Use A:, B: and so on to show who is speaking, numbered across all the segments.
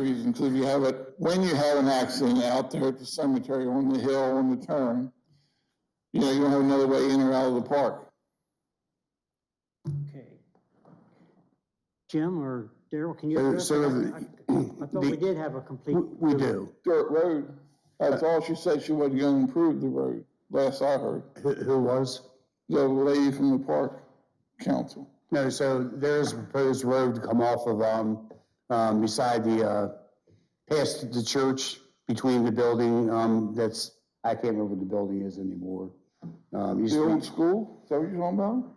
A: We include you have it, when you have an accident out there at the cemetery, on the hill, on the turn, you know, you don't have another way in or out of the park.
B: Okay. Jim or Daryl, can you
C: So-
B: address
C: Uh, so
B: that? I I thought we
C: the-
B: did have a complete.
C: We do.
A: Dirt road, that's all she said, she wasn't gonna improve the road, last I heard.
C: Who, who was?
A: The lady from the park council.
C: No, so there's a proposed road to come off of, um, um, beside the, uh, past the church, between the building, um, that's, I can't remember what the building is anymore. Um, used
A: The
C: to
A: old
C: be
A: school, is that what you're talking about?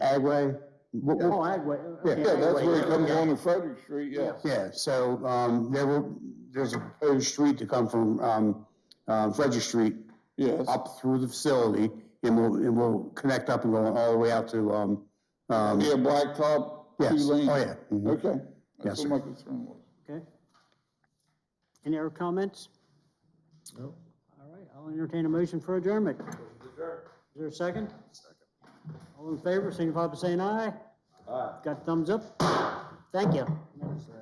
C: Agway. What- what-
B: Oh, Agway.
C: Yeah,
A: Yeah, that's where it
C: yeah,
A: comes
C: yeah.
A: on to Frederick Street, yes.
C: Yeah, so, um, there were, there's a proposed street to come from, um, um, Frederick Street
A: Yes,
C: up through the facility, and we'll, and we'll connect up and go all the way out to, um, um,
A: yeah, blacktop, two
C: yes, oh,
A: lanes.
C: yeah. mhm.
A: Okay,
C: Yes,
A: that's
C: sir.
A: what my concern was.
B: Okay. Any other comments? No. All right, I'll entertain a motion for adjournment. Is there a second? Second. All in favor, signify by saying aye. Aye. Got thumbs up? Thank you.